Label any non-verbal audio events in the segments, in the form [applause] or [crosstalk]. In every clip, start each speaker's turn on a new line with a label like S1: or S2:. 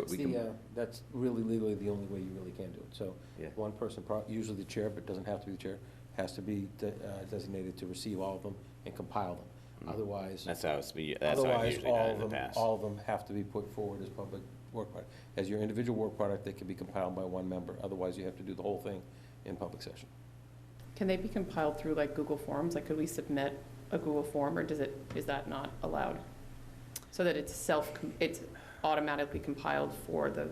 S1: But we
S2: It's
S1: can-
S2: the, uh, That's really legally the only way you really can do it. So
S1: Yeah.
S2: one person, pro- usually the chair, but doesn't have to be the chair, has to be de- uh, designated to receive all of them and compile them.
S1: Mhm.
S2: Otherwise,
S3: Mm-hmm. Mm. That's how it's, be- that's how I've
S2: otherwise,
S3: usually done
S2: all
S3: it in the
S2: of them,
S3: past.
S2: all of them have to be put forward as public work product. As your individual work product, they can be compiled by one member. Otherwise, you have to do the whole thing in public session.
S4: Can they be compiled through like Google Forms? Like, could we submit a Google form, or does it, is that not allowed? So that it's self, it's automatically compiled for the,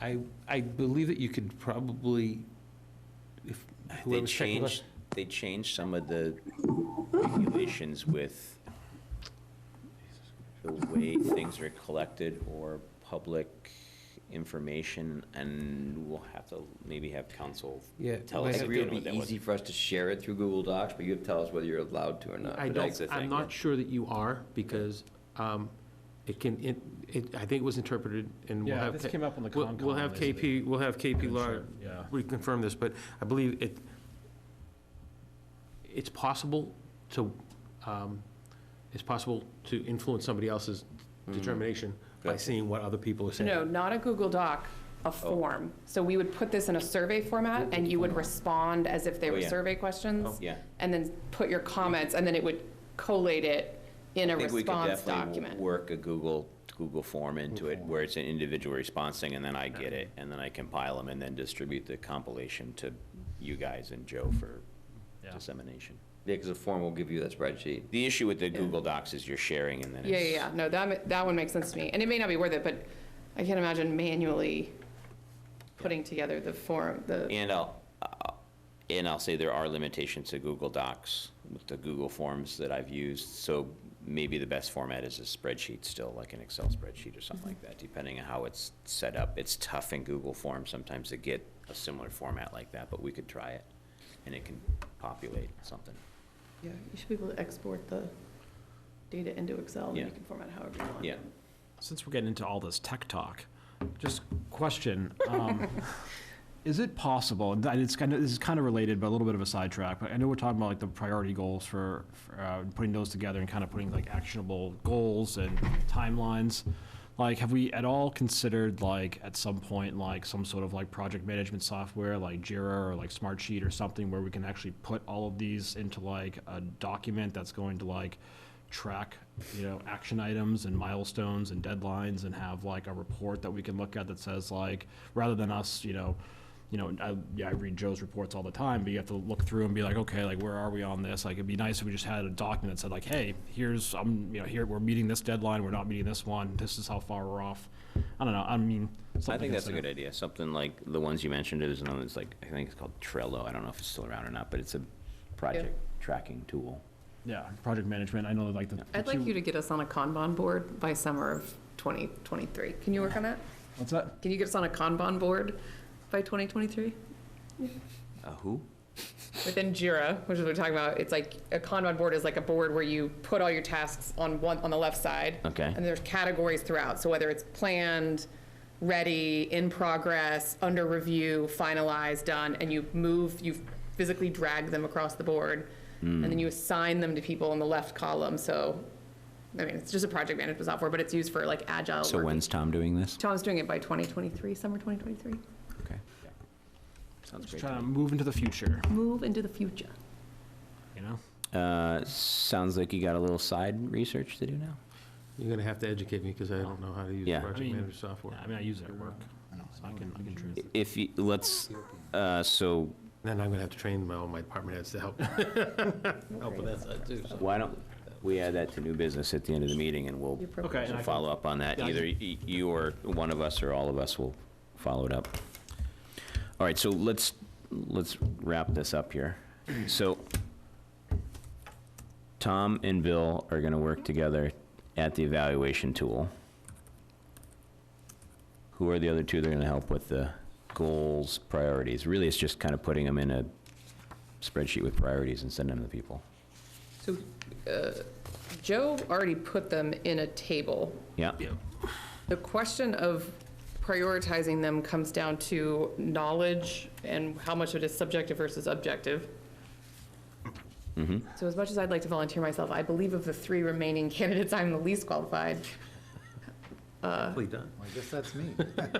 S5: I, I believe that you could probably, if
S1: They
S5: whoever's checking.
S1: changed, they changed some of the regulations with the way things are collected or public information, and we'll have to maybe have council
S5: Yeah,
S3: tell
S5: but
S3: us
S5: I
S3: if
S6: I agree
S3: they
S6: it
S3: know
S6: would
S3: what
S6: be
S3: that was.
S6: easy for us to share it through Google Docs, but you have to tell us whether you're allowed to or not.
S5: I
S6: but
S5: don't,
S3: that's the
S5: I'm
S3: thing, yeah.
S5: not sure that you are, because um, it can, it, it- I think it was interpreted, and we'll
S7: Yeah,
S5: have.
S7: this
S5: K-
S7: came up on the
S5: we'll-
S7: Concom.
S5: We'll have
S7: as a
S5: KP, we'll have KP Law
S7: concern, Yeah.
S5: reconfirm this, but I believe it, it's possible to, um, it's possible to influence somebody else's
S7: Mm-hmm.
S5: determination by
S6: Gotcha.
S5: seeing what other people are saying.
S4: no, not a Google Doc,
S3: Oh.
S4: a form. So we would put this in a survey format, and you would respond as if they
S3: Oh,
S4: were
S3: yeah. Oh.
S4: survey questions,
S3: Yeah.
S4: and then put your comments, and then it would collate it in a
S3: I think we could
S4: response
S3: definitely w-
S4: document.
S3: Work a Google, Google form into it, where it's an individual response thing, and then I get it, and then I compile them, and then distribute the compilation to you guys and Joe for
S7: Yeah.
S3: dissemination.
S6: Yeah, because the form will give you that spreadsheet.
S3: The issue with the Google Docs is you're sharing, and then
S4: Yeah,
S3: it's.
S4: yeah, yeah. No, that, ma- that one makes sense to me. And it may not be worth it, but I can't imagine manually putting together the form, the.
S3: And I'll, uh, and I'll say there are limitations to Google Docs, with the Google Forms that I've used, so maybe the best format is a spreadsheet still, like an Excel spreadsheet or something like that, depending on how it's set up. It's tough in Google Forms sometimes to get a similar format like that, but we could try it, and it can populate something.
S4: Yeah, you should be able to export the data into Excel,
S3: and
S4: and
S3: you
S4: you
S3: Yeah.
S4: can format however you want.
S3: Yeah.
S7: Since we're getting into all this tech talk, just question, um, is it possible, and that- it's kind of, this is kind of related, but a little bit of a sidetrack, but I know we're talking about like the priority goals for, for, uh, putting those together and kind of putting like actionable goals and timelines. Like, have we at all considered like, at some point, like some sort of like project management software, like Jira or like Smartsheet or something where we can actually put all of these into like a document that's going to like track, you know, action items and milestones and deadlines and have like a report that we can look at that says like, rather than us, you know, you know, I, yeah, I read Joe's reports all the time, but you have to look through and be like, okay, like where are we on this? Like it'd be nice if we just had a document that said like, hey, here's, I'm, you know, here, we're meeting this deadline, we're not meeting this one, this is how far we're off. I don't know, I mean, something.
S3: I think that's a
S7: like-
S3: good idea, something like the ones you mentioned, there's another, it's like, I think it's called Trello, I don't know if it's still around or not, but it's a project tracking tool.
S7: Yeah, project management, I know like the.
S4: I'd like you to get us on a Kanban board by summer of 2023. Can you work on that?
S7: What's that?
S4: Can you get us on a Kanban board by 2023?
S3: Uh, who?
S4: Within Jira, which is what we're talking about, it's like, a Kanban board is like a board where you put all your tasks on one, on the left side.
S3: Okay.
S4: And there's categories throughout, so whether it's planned, ready, in progress, under review, finalized, done, and you move, you physically drag them across the board, and
S3: Hmm.
S4: then you assign them to people in the left column, so, I mean, it's just a project management software, but it's used for like agile.
S3: So
S4: work.
S3: when's Tom doing this?
S4: Tom's doing it by 2023, summer 2023.
S3: Okay. Sounds
S7: Just
S3: great.
S7: trying to move into the future,
S4: Move into the future.
S7: you know?
S3: Uh, sounds like you got a little side research to do now.
S2: You're going to have to educate me because I don't know how to use
S3: Yeah.
S5: I mean,
S2: management
S7: Yeah, I mean, I use it at work, so I can, I can translate.
S3: If you, let's, uh, so
S2: Then I'm going to have to train my, all my department heads to help,
S3: Oh,
S2: help with that side too. so.
S3: why don't we add that to new business at the end of the meeting and we'll
S4: Your program.
S7: Okay, and I can
S3: follow up on that.
S7: Yeah, I
S3: Either y- you or one of us or all of us will follow it up. All right, so let's, let's wrap this up
S7: [clears throat]
S3: here. So Tom and Bill are going to work together at the evaluation tool. Who are the other two that are going to help with the goals, priorities? Really, it's just kind of putting them in a spreadsheet with priorities and sending them to people.
S4: So uh, Joe already put them in a table.
S3: Yeah?
S4: The question of prioritizing them comes down to knowledge and how much of it is subjective versus objective.
S3: Mm-hmm.
S4: So as much as I'd [laughs] like to volunteer myself, I believe of the three remaining candidates, I'm the least qualified. Um,
S8: Quickly done. I guess that's me.